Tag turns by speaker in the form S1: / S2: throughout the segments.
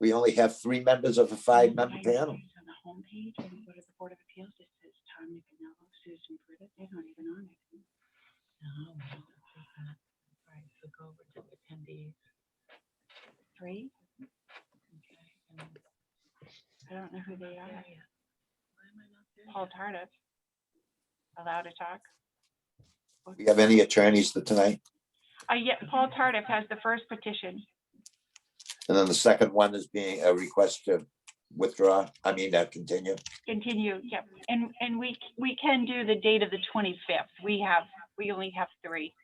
S1: We only have three members of a five-member panel.
S2: On the homepage and go to the Board of Appeals, it says Tom Nicanello, Oh, Susan Britta, they're not even on
S3: Oh,
S2: it.
S3: No, no, it doesn't. Right, so go over to attendees.
S2: Three,
S3: Okay, and then-
S2: I don't know who they
S3: Yeah,
S2: are.
S3: yeah. Why am I not there
S2: Paul
S3: yet?
S2: Tardif. Allowed to talk?
S1: Do you have any attorneys for tonight?
S2: Uh, yeah, Paul Tardif has the first petition.
S1: And then the second one is being a request to withdraw, I mean, uh, continue.
S2: Continue, yep. And, and we, c- we can do the date of the 25th. We have, we only have three.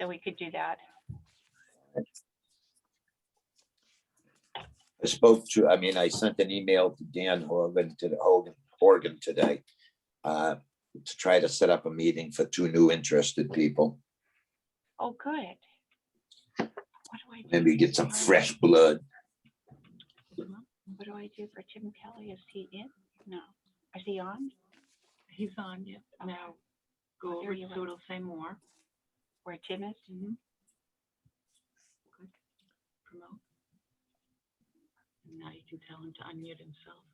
S2: So we could do that.
S1: I spoke to, I mean, I sent an email to Dan Hogan, to the Hogan, Horgan today uh, to try to set up a meeting for two new interested people.
S2: Oh, good. What do I do?
S1: Maybe
S2: for
S1: get some
S2: Tim Kelly?
S1: fresh blood.
S2: What do I do for Tim Kelly? Is he in? No. Is he on?
S3: He's on, yeah. Now,
S2: Oh,
S3: go
S2: there
S3: over
S2: you
S3: to
S2: are.
S3: Doodle Say More.
S2: Where Tim is?
S3: Mhm. Good. Promote. And Now you can tell him to unmute himself.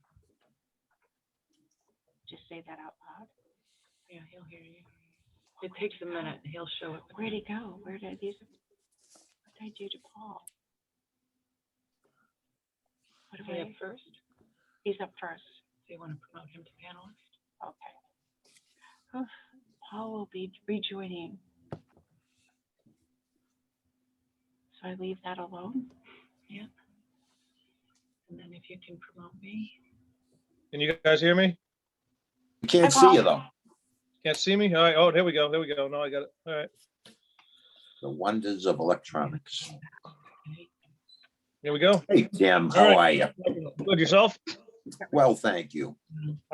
S2: Just say that out loud.
S3: Yeah, he'll hear you. It takes a minute. He'll show up.
S2: Where'd he go? Where did these? What did I do to Paul? What
S3: Is
S2: do
S3: he up
S2: I?
S3: first? Do
S2: He's up first.
S3: you want to promote him to panelist?
S2: Okay. Oof, Paul will be rejoining. So I leave that alone?
S3: And then if you can promote me.
S4: Can you guys hear me?
S1: You Can't see you though.
S4: Can't see me? All right. Oh, there we go. There we go. No, I got it. All right.
S1: The wonders of electronics.
S4: Here we go.
S1: Hey, Tim, how are you?
S4: Good yourself.
S1: Well, thank you.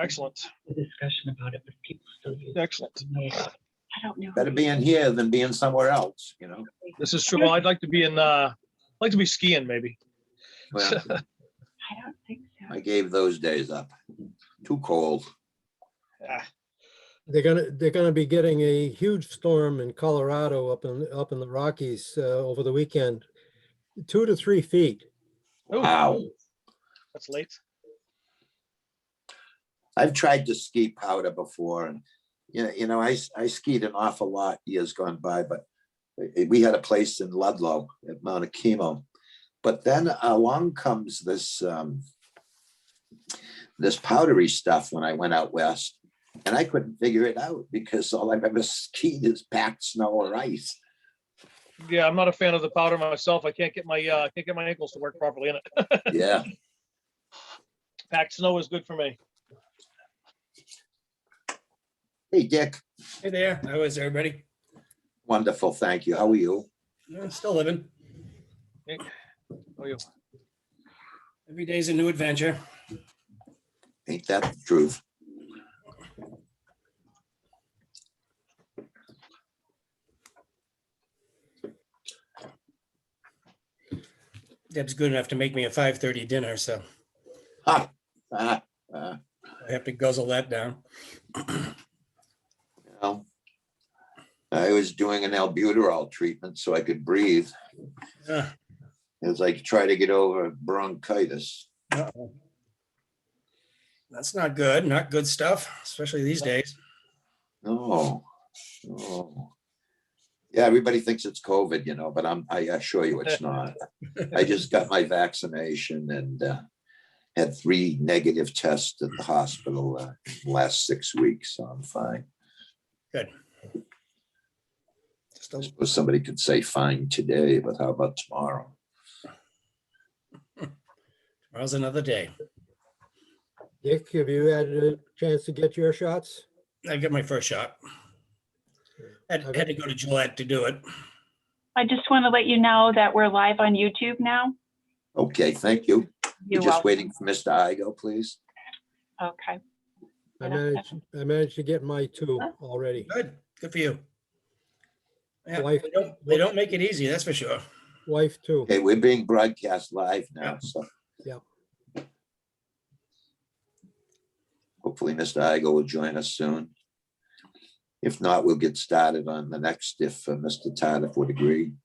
S4: Excellent.
S3: mm, The discussion about it, but people still use.
S4: Excellent.
S2: I don't know. who
S1: Better
S2: he-
S1: being here than being somewhere else, you know?
S4: This is true. Well, I'd like to be in, uh, I'd like to be skiing maybe.
S1: Well,
S2: I don't think so.
S1: I gave those days up. Too cold.
S4: Ah,
S5: They're gonna, they're gonna be getting a huge storm in Colorado up in, up in the Rockies uh, over the weekend. Two to three feet.
S4: ooh,
S1: Wow.
S4: That's late.
S1: I've tried to ski powder before and, you know, you know, I, s- I skied an awful lot years gone by, but i- we had a place in Ludlow at Mount Akemo. But then along comes this, um, this powdery stuff when I went out west and I couldn't figure it out because all I've ever skied is packed snow or ice.
S4: Yeah, I'm not a fan of the powder myself. I can't get my, uh, can't get my ankles to work properly in it.
S1: Yeah,
S4: Packed snow is good for me.
S1: hey, Dick,
S6: Hey there, how is everybody?
S1: wonderful, thank you, how are you?
S6: I'm still living.
S4: Oh, you?
S6: Every day's a new adventure.
S1: Ain't that the truth?
S6: Deb's good enough to make me a 5:30 dinner, so
S1: Ah, ah,
S6: I have to guzzle that down.
S1: you know. I was doing an albuterol treatment so I could breathe.
S6: Ah,
S1: It's like try to get over bronchitis.
S6: uh-oh. That's not good, not good stuff, especially these days.
S1: No. no. Yeah, everybody thinks it's COVID, you know, but I'm, I assure you it's not. I just got my vaccination and uh, had three negative tests at the hospital uh, last six weeks, so I'm fine.
S6: Just a
S1: I suppose somebody could say fine today, but how about tomorrow?
S6: Tomorrow's another day.
S5: Dick, have you had a chance to get your shots?
S6: I got my first shot. Had had to go to Gillette to do it.
S2: I just want to let you know that we're live on YouTube now.
S1: Okay, thank you.
S2: You're
S1: You're just
S2: welcome.
S1: waiting for Mr. Igo, please.
S2: Okay.
S5: I
S2: Yeah.
S5: managed, I managed to get my two
S2: Huh?
S5: already.
S6: Good, good for you. Yeah,
S5: Wife-
S6: they don't, they don't make it easy, that's for sure.
S5: Wife too.
S1: Okay, we're being broadcast live now, so.
S5: Yep.
S1: Hopefully, Mr. Igo will join us soon. If not, we'll get started on the next if uh, Mr. Tardif would agree.